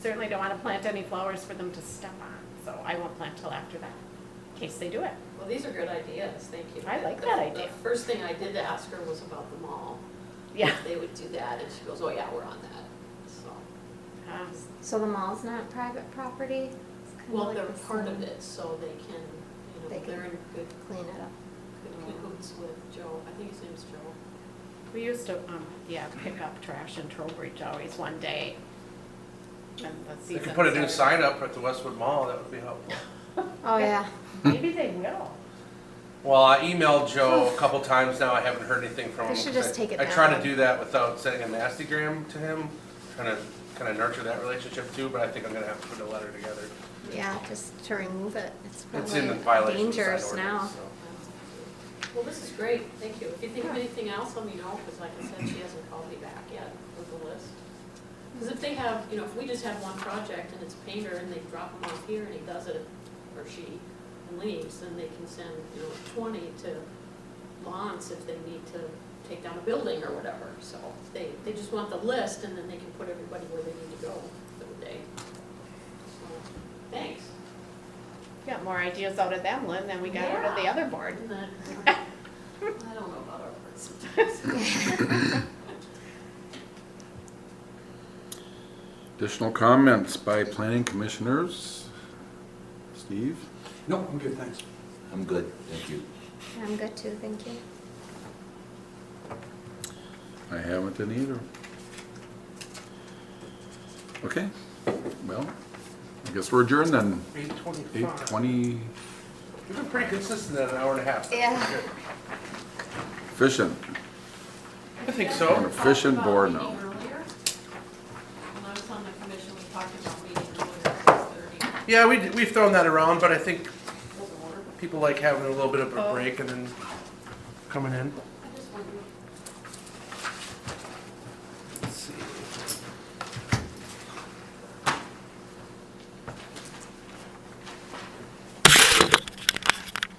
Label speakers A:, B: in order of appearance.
A: certainly don't want to plant any flowers for them to step on, so I won't plant till after that, in case they do it.
B: Well, these are good ideas, thank you.
A: I like
B: The-
A: that idea.
B: The first thing I did to ask her was about the mall.
A: Yeah.
B: They would do that, and she goes, oh yeah, we're on that, so.
A: Um,
C: So the mall's not private property? It's kinda
B: Well,
C: like
B: they're
C: the
B: part of
C: same.
B: it, so they can, you
C: They
B: know,
C: can-
B: they're in good,
C: Clean it up.
B: good cahoots with Joe, I think his name's Joe.
A: We used to, um, yeah, pick up trash in Trowbridge always one day. And the
D: If you
A: season.
D: put a new
A: started.
D: sign up at the Westwood Mall, that would be helpful.
C: Oh, yeah.
A: Maybe they will.
D: Well, I emailed Joe a couple times now, I haven't heard anything from
C: I
D: him.
C: should
D: 'cause
C: just take it
D: I try to
C: down.
D: do that without sending a nasty gram to him, trying to kind of nurture that relationship too, but I think I'm gonna have to put a letter together.
C: Yeah, just to remove it. It's
D: It's in
C: probably
D: violation of the sign
C: dangerous now.
D: ordinance, so.
B: Well, this is great, thank you. If you think of anything else, let me know, because like I said, she hasn't called me back yet with the list. Because if they have, you know, if we just have one project and it's a painter and they drop him off here and he does it, or she, and leaves, then they can send, you know, twenty to Lawrence if they need to take down a building or whatever. So they, they just want the list and then they can put everybody where they need to go for the day. So, Thanks.
A: Got more ideas out of them, Lynn, than we got out of the
B: Yeah.
A: other board.
B: Isn't that- I don't know about our words sometimes.
E: Additional comments by planning commissioners? Steve?
F: No, I'm good, thanks.
G: I'm good, thank you.
C: I'm good too, thank you.
E: I haven't done either. Okay, well, I guess we're adjourned then.
D: Eight
E: Eight
D: twenty-five.
E: twenty
D: You've been pretty consistent at an hour and a half.
C: Yeah.
D: Good.
E: efficient.
D: I think so.
E: An efficient board now.
B: When I was on the commission, we talked about meeting earlier at six thirty.
D: Yeah, we, d- we've thrown that around,
C: Oh.
D: but I think people like having a little bit of a break and then coming in.